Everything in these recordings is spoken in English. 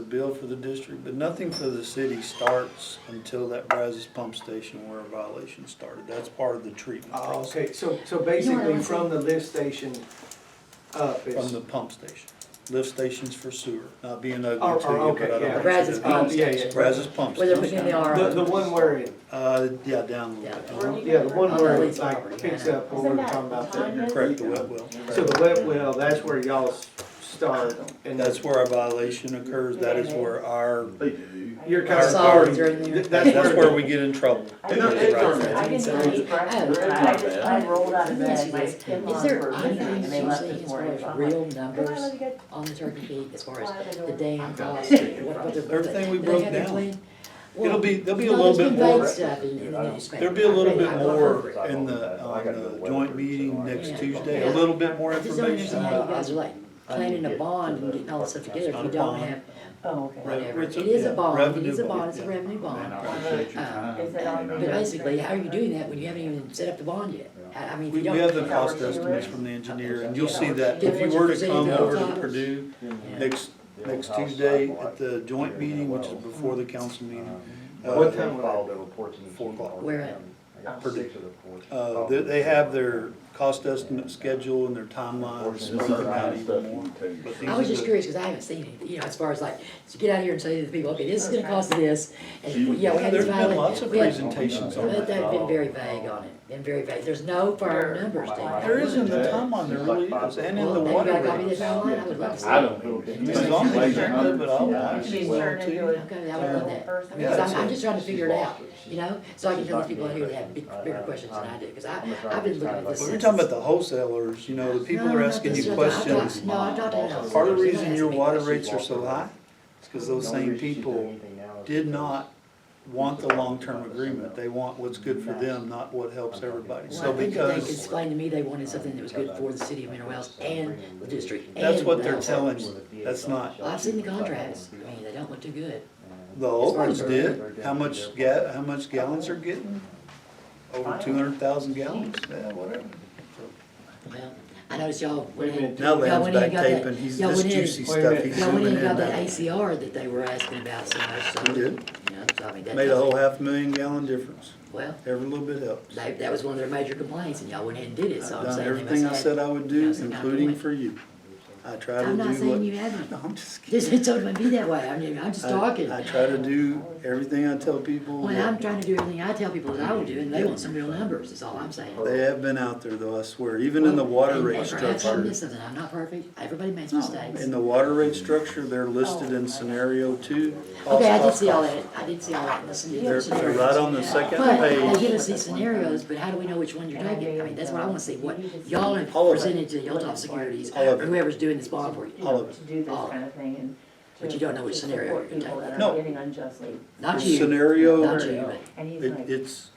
bill for the district, but nothing for the city starts until that Brazos pump station where a violation started. That's part of the treatment Oh, process okay, so, so basically from the lift station up from is, the pump station. Lift stations for sewer, not being Oh, oh, ugly to you, okay, but I yeah. don't. Brazos pump Yeah, yeah. station. Brazos pump Where they're putting station. in the the, the RO. one where it, Uh, yeah, down a little Yeah. bit. yeah, the one On the where it lease like property, picks yeah. up what we we're talking about there. uh-huh. Correct the wet well. So the wet well, that's where y'all s- start and That's where our violation occurs. That is where our, They do. You're kind Our of. solids are in there. that's where we get in trouble. They don't- they don't- I didn't even eat breakfast, Oh, and I just, I rolled out of bed, my skin Is was there, I'm burning, not and they even left saying this as far morning. as I'm like, real "Come on, numbers let me get-" on the Turkey Feet, as far as Why they the don't- damn I've cost, got what, what they're. Everything we do they broke have their down. plan? It'll Well, be, there'll be a no, little there's bit been vague more. stuff in- in the newspaper. There'll be a little bit I read- I more read- in the, on the joint meeting next Tuesday, a little bit more I just don't information. understand how you guys are like planning a bond and getting all this stuff together if Not you a don't bond. have Oh, okay. whatever. It's It a- is yeah, a bond, it is revenue a bond, bond, it's a yeah. revenue Man, bond. I appreciate your Uh, time. Is it But on the- basically, how are you doing that when you haven't even set up the bond yet? I I mean, if We, you we don't. have the Yeah. cost estimates from the engineer, and you'll see that Yeah. if you were to Yeah. come Yeah. over to Yeah. Purdue Yeah. next, next Tuesday at the joint meeting, which is before the council meeting, uh, What time would I- Filed their reports in the Four o'clock. Keene Where Arboretum. I got Purdue. six of the reports. uh, they, they have their cost estimate schedule and their timelines This is broken out nice even stuff more. you can But take. these I was are just the- curious, because I haven't seen it, you know, as far as like, to get out here and say to the people, okay, this is gonna cost this, and, yeah, we had There's this been lots violation. of we had- presentations on that. But they've been very vague on it, been very vague, there's no firm numbers down There there. is in the timeline, there really is, and in the Well, water maybe I copy rates. this online, I would love to see. I it. don't know. As long as you turn it, but I'll watch She's as well turned into too. a Okay, I would love terrible that. person. Yeah, Because that's I'm, I'm it. just trying to figure it out, you know, so I can She's tell the not people out here that have big, gonna- bigger I- I- questions than I do, because I, I'm gonna try I've to been looking at decide this Well, since. what- We're talking about the wholesalers, you know, the people No, are no, asking that's you what I'm talking- questions. No, I'm talking about. Part of the Somebody reason asked your me water rates questions. are so high is because those No same reason she's doing people anything now is did because- not want the long-term agreement. They want what's good for them, not what helps everybody. Well, So I think that they because, explained to me they wanted something that was good for the city of Mineral Wells and the district. That's and what the they're house. telling you. That's not- Well, I've seen the contracts, I mean, they don't look too good. the old ones did, how much ga, how much gallons are getting? Over two hundred thousand gallons, yeah, whatever. Well, I noticed y'all. went Wait a in- minute. Now y'all Land's went in back and got that- taping, he's, y'all this went in- juicy Wait a stuff, minute. he's Y'all went in zooming and in got that now. ACR that they were asking about so much, so. We did. You know, so I mean, that. Made a whole half million gallon difference, Well, every little bit helps. they, that was one of their major complaints and y'all went in and did it, so I've I'm done saying. they must everything I have- said I would you do, know, so y'all including doing- for you. I try to do I'm what. not saying you haven't. No, I'm just kidding. Just, it don't even be that way, I'm, just- I'm just talking. I I try to do everything I tell people. Well, I'm that- trying to do everything I tell people that I will do, and they want some real numbers, is all I'm saying. They have been out there though, I swear, even in the water And rate if I- if I structure. miss something, I'm not perfect, everybody makes mistakes. In the water rate structure, they're Oh, listed in scenario two. cost, Okay, I did cost, see all cost. that, I did see all that, listen to They're, your they're scenarios. right on the second But they page. give us these scenarios, but how do we know which one you're taking? I mean, that's what I wanna see, what y'all have All of it. presented to the top Securities, All of or it. whoever's doing this bond for you. All of it. To do this All of it. kind of thing and. But to- you don't know which to scenario support you're people taking. that are No. Getting unjustly. Not you, not Scenario, you, And he's it- like, it's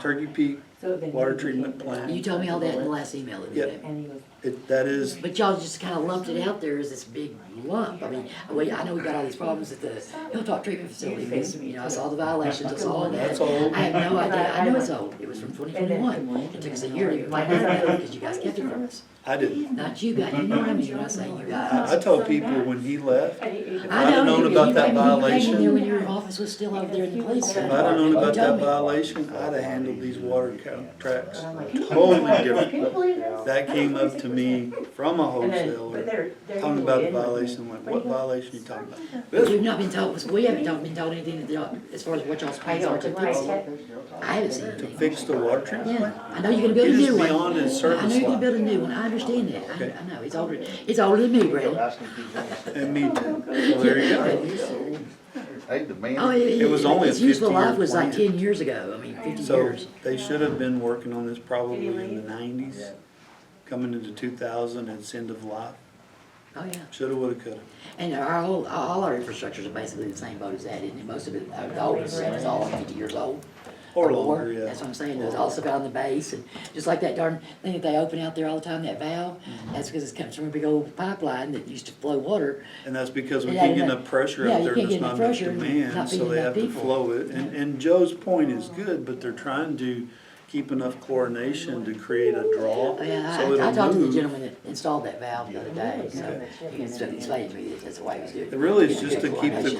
Turkey Peak, so then. water you treatment can't deny but plant. you told me all that in the last email that you Yeah. gave me. And he was, it, that is, But y'all just kinda lumped it out there as this big lump, I mean, we, I know we got all these problems at the Hilltop Treatment Facility, because, you know, I saw the violations, I saw all that. that's all. I have no idea, I know it's old, it was from twenty twenty-one, it took us a year to even find out, because you guys kept it from us. I didn't. Not you guys, you know what I mean, when I say you guys. I, I told people when he left, and he- he was I I'd have known you- about you- that you came in violation. there When your office was still over there in the police. If if station. I'd have known You about told that me. violation, I'd have handled these water contracts I'm like, totally different. Can you believe this? That came up to me from a And then, but wholesaler, they're, they're. talking about a usually in with me. violation, like, what violation you talking about? But This, You've not been told, we haven't told- been told anything that y'all, as far as what y'all's I plans know, are to because when I fix it. checked, I haven't seen anything. fix the water treatment Yeah, plant? I know you're gonna build a It is new one. beyond its I know service you're gonna line. build a new one, I understand that, I, I know, it's older, it's older than me, Brandon. Asking people. And me too. So there you go. Hey, the man. Oh, it, it, It was only a its useful 50-year life was like plan. ten years ago, I mean, fifty So years. they should have been working on this probably in the nineties, coming into two thousand, it's end of life. Oh, yeah. Shoulda, woulda, coulda. And our whole, all our infrastructures are basically the same boat as that, and most of it, uh, the oldest stuff is all like fifty years old. Or longer, yeah. That's what I'm saying, there's also out on the base, and just like that darn thing that they open out there all the time, that valve, Mm-hmm. that's because it comes from a big old pipeline that used to flow water. And that's because we Yeah, can't get you know. enough pressure Yeah, up you there, can't there's get not enough enough pressure and not demand, so feeding they enough have to people. flow it. And, and Joe's point is good, but they're trying to keep enough chlorination to create a draw, I so mean, Oh, I, I it'll talked to the move. gentleman that installed that valve the other day, so he explained to me that that's the way he was doing it. It really is just to keep Good the coordination.